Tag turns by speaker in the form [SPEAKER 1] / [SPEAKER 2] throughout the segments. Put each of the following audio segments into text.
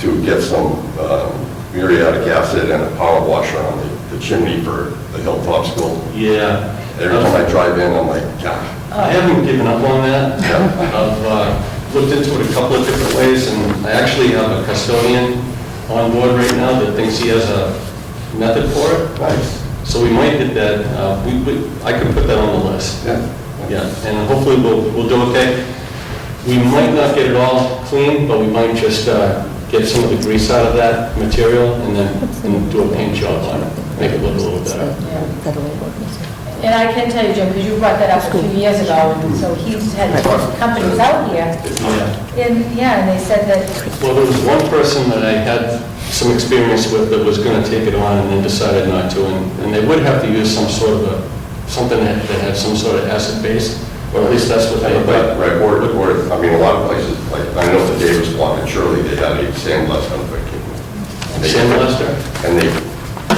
[SPEAKER 1] to get some um, muriatic acid and a power washer on the- the chimney for the Hilltop School.
[SPEAKER 2] Yeah.
[SPEAKER 1] Every time I drive in, I'm like, gosh.
[SPEAKER 2] I haven't given up on that. I've uh, looked into it a couple of different ways, and I actually have a custodian on board right now that thinks he has a method for it.
[SPEAKER 1] Nice.
[SPEAKER 2] So we might get that, uh, we, we- I could put that on the list.
[SPEAKER 1] Yeah.
[SPEAKER 2] Yeah, and hopefully we'll, we'll do okay. We might not get it all clean, but we might just uh, get some of the grease out of that material and then and do a paint job on it, make it look a little better.
[SPEAKER 3] And I can tell you, Jim, because you brought that up a few years ago, and so he's had companies out here,
[SPEAKER 2] Yeah.
[SPEAKER 3] and, yeah, and they said that,
[SPEAKER 2] Well, there was one person that I had some experience with that was going to take it on and then decided not to, and and they would have to use some sort of a, something that that had some sort of acid base, or at least that's what they,
[SPEAKER 1] Right,
[SPEAKER 2] but,
[SPEAKER 1] right, or, or, I mean, a lot of places, like, I know the Davis Block and Shirley, they had a sandblast on the...
[SPEAKER 2] sandblaster?
[SPEAKER 1] And they,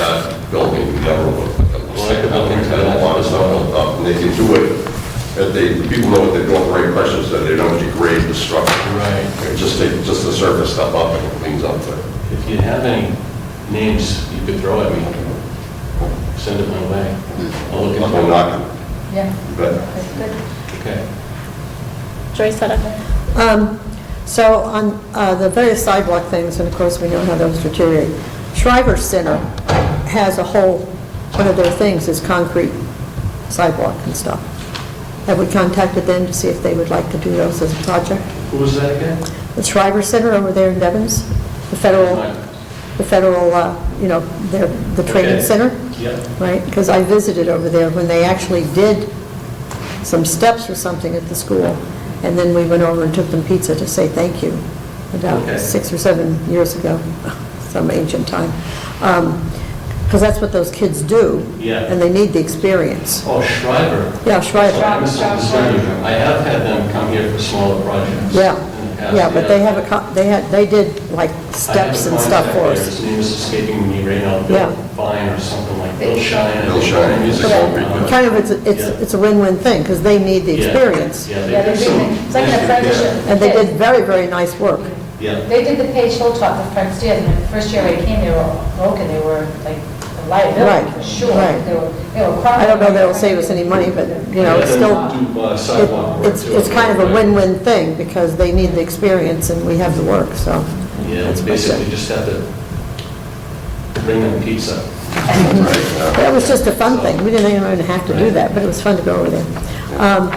[SPEAKER 1] that building never looked like a...
[SPEAKER 2] Well, I could look into that.
[SPEAKER 1] And A lot of stuff built up, and they can do it, if they, the people know what they're doing, the right pressure, so they don't degrade the structure.
[SPEAKER 2] Right.
[SPEAKER 1] It Just, they- just the surface stuff up and it cleans up the...
[SPEAKER 2] If you have any names you could throw at me, send it my way. I'll look
[SPEAKER 1] I'm
[SPEAKER 2] into it.
[SPEAKER 1] not,
[SPEAKER 3] yeah,
[SPEAKER 1] but
[SPEAKER 3] that's good.
[SPEAKER 2] Okay.
[SPEAKER 4] Joyce had a,
[SPEAKER 5] Um, So on uh, the various sidewalk things, and of course, we know how those deteriorate, Shriver Center has a whole, one of their things is concrete sidewalk and stuff. Have we contacted them to see if they would like to do those as a project?
[SPEAKER 2] Who was that again?
[SPEAKER 5] The Shriver Center over there in Devens, the federal, the federal, uh, you know, their- the training
[SPEAKER 2] Okay.
[SPEAKER 5] center?
[SPEAKER 2] Yeah.
[SPEAKER 5] right? Because I visited over there when they actually did some steps or something at the school, and then we went over and took them pizza to say thank you
[SPEAKER 2] Okay.
[SPEAKER 5] about six or seven years ago, some ancient time. Because that's what those kids do.
[SPEAKER 2] Yeah.
[SPEAKER 5] And they need the experience.
[SPEAKER 2] Oh, Shriver.
[SPEAKER 5] Yeah, Shriver.
[SPEAKER 2] I misunderstood you. I have had them come here for smaller projects. in the
[SPEAKER 5] Yeah,
[SPEAKER 2] past,
[SPEAKER 5] yeah, but they have a, co- they had, they did like steps and stuff for us.
[SPEAKER 2] His name is escaping me right now,
[SPEAKER 5] Yeah.
[SPEAKER 2] Bill Fine or something like, Bill Shine.
[SPEAKER 1] Bill Shine, he's a
[SPEAKER 5] But Kind of, it's, it's it's a win-win thing, because they need the
[SPEAKER 2] Yeah.
[SPEAKER 5] experience.
[SPEAKER 2] Yeah,
[SPEAKER 3] Yeah,
[SPEAKER 2] they
[SPEAKER 3] they
[SPEAKER 2] did
[SPEAKER 3] did,
[SPEAKER 2] some.
[SPEAKER 3] it's like an apprenticeship.
[SPEAKER 5] And they did very, very nice work.
[SPEAKER 2] Yeah,
[SPEAKER 3] They did the Page Hilltop, the front stairs, and the first year I came, they were broken, they were like a liability,
[SPEAKER 5] Right,
[SPEAKER 3] for sure.
[SPEAKER 5] right.
[SPEAKER 3] They were, they were crumbling.
[SPEAKER 5] I don't know that it'll save us any money, but, you know, it's
[SPEAKER 2] Yeah,
[SPEAKER 5] still,
[SPEAKER 2] do, uh, sidewalk work
[SPEAKER 5] it- it's,
[SPEAKER 2] too,
[SPEAKER 5] it's kind of a
[SPEAKER 2] right.
[SPEAKER 5] win-win thing, because they need the experience and we have the work, so.
[SPEAKER 2] yeah, it's
[SPEAKER 5] that's what I said.
[SPEAKER 2] basically just have to bring them pizza.
[SPEAKER 1] Right,
[SPEAKER 5] That was just a fun thing, we didn't even have to do that, but it was fun to go over there. Um,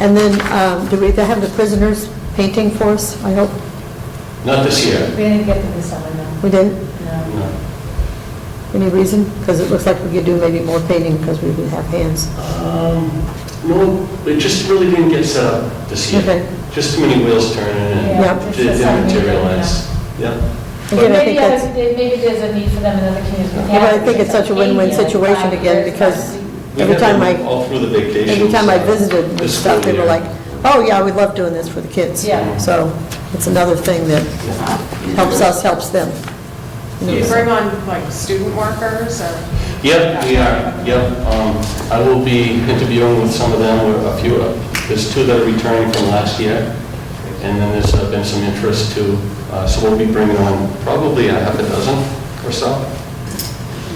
[SPEAKER 5] And then, um, do we, they have the prisoners painting for us, I hope?
[SPEAKER 2] Not this year,
[SPEAKER 3] We didn't get them this summer, no,
[SPEAKER 5] We didn't?
[SPEAKER 3] no.
[SPEAKER 2] no.
[SPEAKER 5] Any reason? Because it looks like we could do maybe more painting, because we didn't have hands.
[SPEAKER 2] Um, No, it just really didn't get set up this year.
[SPEAKER 5] Okay.
[SPEAKER 2] Just too many wheels turning
[SPEAKER 3] Yeah,
[SPEAKER 2] and it
[SPEAKER 3] just
[SPEAKER 2] didn't
[SPEAKER 3] something,
[SPEAKER 2] materialize. Yeah,
[SPEAKER 5] Again, I
[SPEAKER 3] Maybe uh,
[SPEAKER 5] think
[SPEAKER 3] others-
[SPEAKER 5] that's,
[SPEAKER 3] maybe there's a need for them in other communities.
[SPEAKER 5] Yeah, but I think it's such a win-win situation again, because
[SPEAKER 2] We
[SPEAKER 5] every
[SPEAKER 2] had
[SPEAKER 5] time I.
[SPEAKER 2] them All through the vacations.
[SPEAKER 5] Every time I visited
[SPEAKER 2] The
[SPEAKER 5] with stuff, they
[SPEAKER 2] school
[SPEAKER 5] were
[SPEAKER 2] year.
[SPEAKER 5] like, oh, yeah, we love doing this for the kids.
[SPEAKER 3] Yeah.
[SPEAKER 5] So it's another thing that helps us, helps them.
[SPEAKER 6] Do you bring on like student workers or?
[SPEAKER 2] Yep, we are, yep. Um, I will be interviewing with some of them, or a few, of- there's two that are returning from last year, and then there's uh, been some interest too, Uh, so we'll be bringing on probably a half a dozen or so.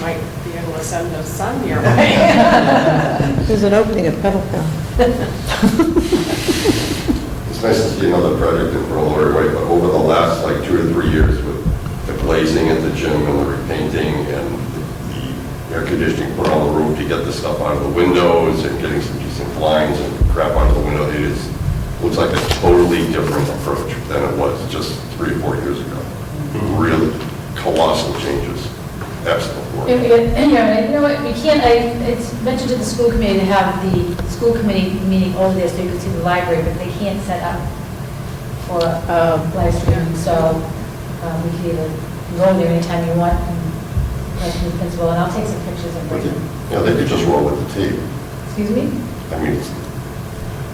[SPEAKER 6] Might be able to send a son your way.
[SPEAKER 5] There's an opening at Pedal Pal.
[SPEAKER 1] It's nice to see another project in Berlin, right, but over the last, like, two or three years with the glazing at the gym and the repainting and the air conditioning put on the roof to get the stuff out of the windows and getting some decent blinds and crap out of the window, it is, looks like a totally different approach than it was just three or four years ago. Really colossal changes. That's the
[SPEAKER 3] Yeah,
[SPEAKER 1] word.
[SPEAKER 3] we- yeah, You know what, we can't, I, it's mentioned to the school committee to have the school committee meeting over there so you can see the library, but they can't set up for a live stream, so um, we can either go there anytime you want, and like the principal, and I'll take some pictures and bring them.
[SPEAKER 1] Yeah, they could just roll with the tape.
[SPEAKER 3] Excuse me?
[SPEAKER 1] I mean, it's-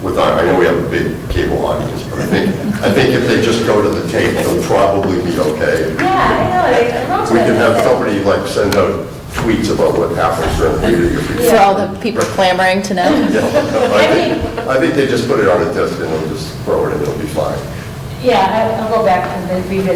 [SPEAKER 1] with our, I know we have a big cable audience, but I think, I think if they just go to the tape, it'll probably be okay.
[SPEAKER 3] Yeah, I know, I- I wrote
[SPEAKER 1] We can have
[SPEAKER 3] that.
[SPEAKER 1] somebody like send out tweets about what happens during the meeting. if we-
[SPEAKER 4] for all the people clamoring to know.
[SPEAKER 1] Yeah, no, I think, I think they just put it on a disc and they'll just throw it and it'll be fine.
[SPEAKER 3] Yeah, I- I'll go back and then revisit